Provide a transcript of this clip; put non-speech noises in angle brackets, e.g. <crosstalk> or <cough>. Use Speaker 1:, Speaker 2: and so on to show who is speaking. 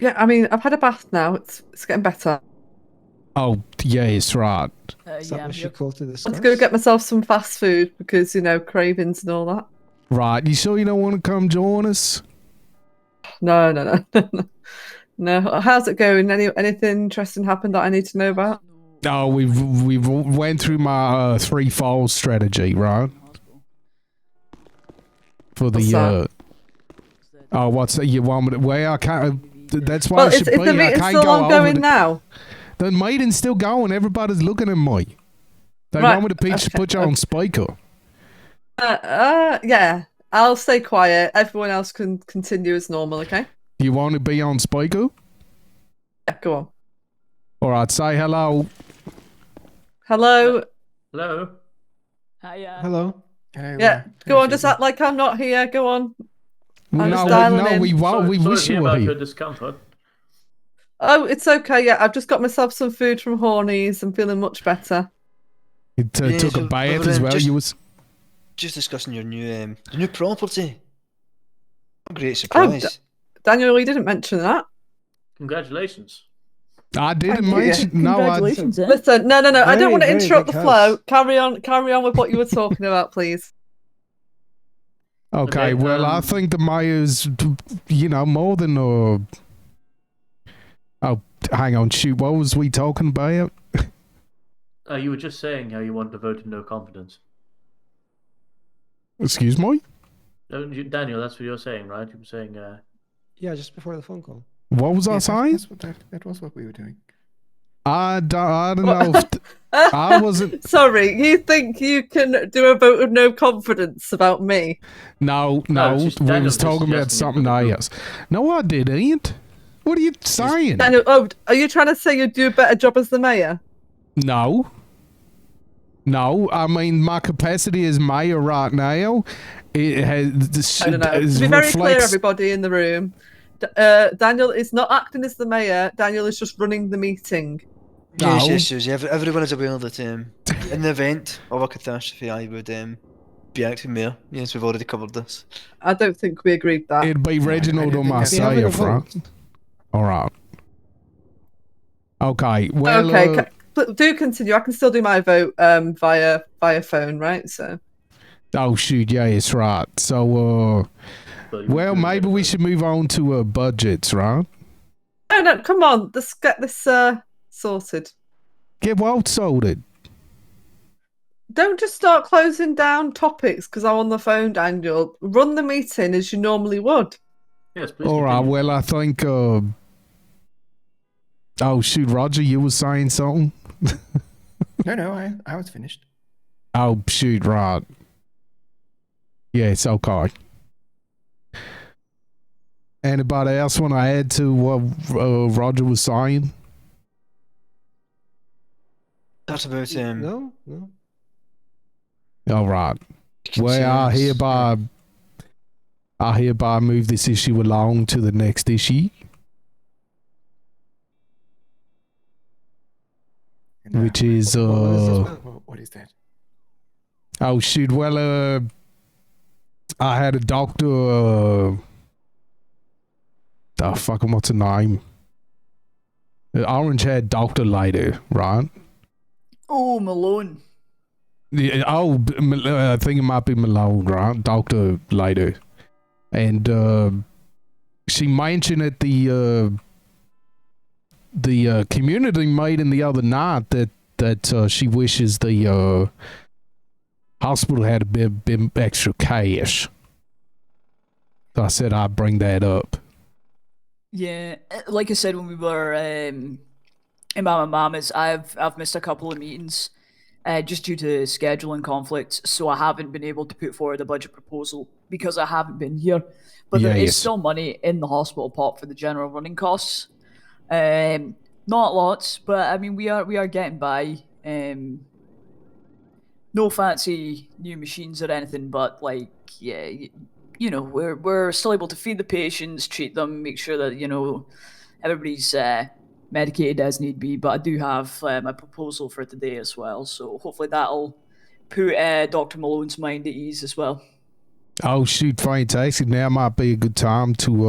Speaker 1: Yeah, I mean, I've had a bath now. It's it's getting better.
Speaker 2: Oh, yeah, it's right.
Speaker 3: Uh,
Speaker 4: Is that
Speaker 3: yeah,
Speaker 4: what she
Speaker 3: you're-
Speaker 4: called to discuss?
Speaker 1: Let's go get myself some fast food because you know cravings and all that.
Speaker 2: Right. You sure you don't want to come join us?
Speaker 1: No, no, <laughs> no, no, no. How's it going? Any anything interesting happened that I need to know about?
Speaker 2: Oh, we've we've went through my uh, threefold strategy, right? For the
Speaker 1: What's that?
Speaker 2: uh, oh, what's that? You want me to? Well, I can't. uh, th- That's why
Speaker 1: well,
Speaker 2: I
Speaker 1: is,
Speaker 2: should
Speaker 1: is
Speaker 2: be.
Speaker 1: the
Speaker 2: I
Speaker 1: meeting
Speaker 2: can't
Speaker 1: still
Speaker 2: go over
Speaker 1: ongoing
Speaker 2: the-
Speaker 1: now?
Speaker 2: The meeting's still going. Everybody's looking at me. They
Speaker 1: Right,
Speaker 2: want me to pe-
Speaker 1: okay,
Speaker 2: put you on speaker.
Speaker 1: Uh, uh, yeah. I'll stay quiet. Everyone else can continue as normal. Okay.
Speaker 2: You want to be on speaker?
Speaker 1: Yeah, go on.
Speaker 2: All right. Say hello.
Speaker 1: Hello.
Speaker 5: Hello.
Speaker 3: Hi, uh,
Speaker 4: Hello. Hey,
Speaker 1: Yeah.
Speaker 4: Laura.
Speaker 1: Go
Speaker 4: Hey,
Speaker 1: on. Just
Speaker 4: Phoebe.
Speaker 1: act like I'm not here. Go on. I'm
Speaker 2: no,
Speaker 1: just
Speaker 2: we-
Speaker 1: dialing
Speaker 2: no,
Speaker 1: in.
Speaker 2: we won't.
Speaker 5: Sorry-
Speaker 2: we
Speaker 5: sorry
Speaker 2: wish
Speaker 5: to hear
Speaker 2: you were
Speaker 5: about
Speaker 2: here.
Speaker 5: your discomfort.
Speaker 1: Oh, it's okay. Yeah, I've just got myself some food from Hornies. I'm feeling much better.
Speaker 2: It uh,
Speaker 6: Yeah,
Speaker 2: took a
Speaker 6: so,
Speaker 2: bath
Speaker 6: Reverend,
Speaker 2: as well.
Speaker 6: just-
Speaker 2: You was
Speaker 6: Just discussing your new um, your new property. What a great surprise.
Speaker 1: Daniel, you didn't mention that.
Speaker 5: Congratulations.
Speaker 2: I didn't
Speaker 1: Thank you.
Speaker 2: mention. No, I.
Speaker 3: congratulations, <laughs> eh?
Speaker 1: Listen, no, no, no. I don't
Speaker 4: Very,
Speaker 1: want to
Speaker 4: very
Speaker 1: interrupt the
Speaker 4: big
Speaker 1: flow.
Speaker 4: house.
Speaker 1: Carry on. Carry on with what you were talking about, please.
Speaker 2: Okay,
Speaker 5: Okay,
Speaker 2: well, I
Speaker 5: um,
Speaker 2: think the mayor's, you know, more than uh Oh, hang on, shoot, what was we talking about?
Speaker 5: Uh, you were just saying how you want to vote in no confidence.
Speaker 2: Excuse me?
Speaker 5: Don't you, Daniel, that's what you're saying, right? You were saying, uh,
Speaker 4: Yeah, just before the phone call.
Speaker 2: What was I
Speaker 7: Yeah, that,
Speaker 2: saying?
Speaker 7: that's what, that, that was what we were doing.
Speaker 2: I don't, I don't
Speaker 1: What?
Speaker 2: know.
Speaker 1: <laughs>
Speaker 2: If th- I wasn't.
Speaker 1: Sorry, you think you can do a vote of no confidence about me?
Speaker 2: No, no,
Speaker 5: it's just
Speaker 2: we
Speaker 5: Daniel
Speaker 2: was
Speaker 5: just
Speaker 2: talking about
Speaker 5: suggesting it for
Speaker 2: something
Speaker 5: the group.
Speaker 2: else. No, I didn't. What are you saying?
Speaker 1: Daniel, oh, are you trying to say you'd do a better job as the mayor?
Speaker 2: No. No, I mean my capacity as mayor right now, it has. This,
Speaker 1: I don't know.
Speaker 2: is
Speaker 1: To be very clear,
Speaker 2: reflects-
Speaker 1: everybody in the room, D- uh, Daniel is not acting as the mayor. Daniel is just running the meeting.
Speaker 6: Yes,
Speaker 2: No.
Speaker 6: yes, yes. Every, everyone is aware that um, in the event of a catastrophe, I would um, be acting mayor. Yes, we've already covered this.
Speaker 1: I don't think we agreed that.
Speaker 2: It'd be
Speaker 7: I
Speaker 2: Reginald or
Speaker 7: didn't think
Speaker 4: Yeah, we're gonna
Speaker 2: myself, right?
Speaker 4: vote.
Speaker 2: All right. Okay. Well.
Speaker 1: okay,
Speaker 2: uh,
Speaker 1: ca- but do continue. I can still do my vote um, via via phone, right? So
Speaker 2: oh shoot! Yeah, it's right. So, uh,
Speaker 5: well,
Speaker 2: well,
Speaker 5: you were doing
Speaker 2: maybe
Speaker 5: it,
Speaker 2: we
Speaker 5: but-
Speaker 2: should move on to uh, budgets, right?
Speaker 1: no, no, come on, let's get this uh, sorted.
Speaker 2: Get what sorted.
Speaker 1: Don't just start closing down topics because I'm on the phone, Daniel. Run the meeting as you normally would.
Speaker 5: Yes, please.
Speaker 2: All right.
Speaker 5: continue.
Speaker 2: Well, I think. Uh, oh shoot, Roger, you were saying something.
Speaker 7: No, no, I, I was finished.
Speaker 2: Oh shoot, right. Yeah, it's okay. Anybody else want to add to what uh, Roger was saying?
Speaker 6: That's about um,
Speaker 4: No, no.
Speaker 2: All right. Well, I
Speaker 6: concerns.
Speaker 2: hereby, I hereby move this issue along to the next issue,
Speaker 7: And, uh,
Speaker 2: which is
Speaker 4: What was this
Speaker 2: uh
Speaker 4: about?
Speaker 7: wha- what is that?
Speaker 2: oh shoot. Well, uh, I had a doctor. Uh, the fucking what's her name? The orange haired doctor lady, right?
Speaker 3: Oh, Malone.
Speaker 2: Yeah, oh, b- M- uh, I think it might be Malone, right? Doctor later, and uh, she mentioned at the uh, the uh, community meeting the other night that that uh, she wishes the uh, hospital had a bit, bit extra cash. So I said I'd bring that up.
Speaker 3: Yeah, uh, like I said when we were um, in Mama Mama's, I've I've missed a couple of meetings uh, just due to scheduling conflicts, so I haven't been able to put forward a budget proposal because I haven't been here. But there
Speaker 2: Yeah,
Speaker 3: is
Speaker 2: yes.
Speaker 3: still money in the hospital pot for the general running costs. Um, not lots, but I mean we are we are getting by. Um, no fancy new machines or anything, but like yeah, y- you know we're we're still able to feed the patients, treat them, make sure that you know everybody's uh, medicated as need be. But I do have uh, my proposal for today as well, so hopefully that'll put uh, Doctor Malone's mind at ease as well.
Speaker 2: Oh shoot, fantastic! Now might be a good time to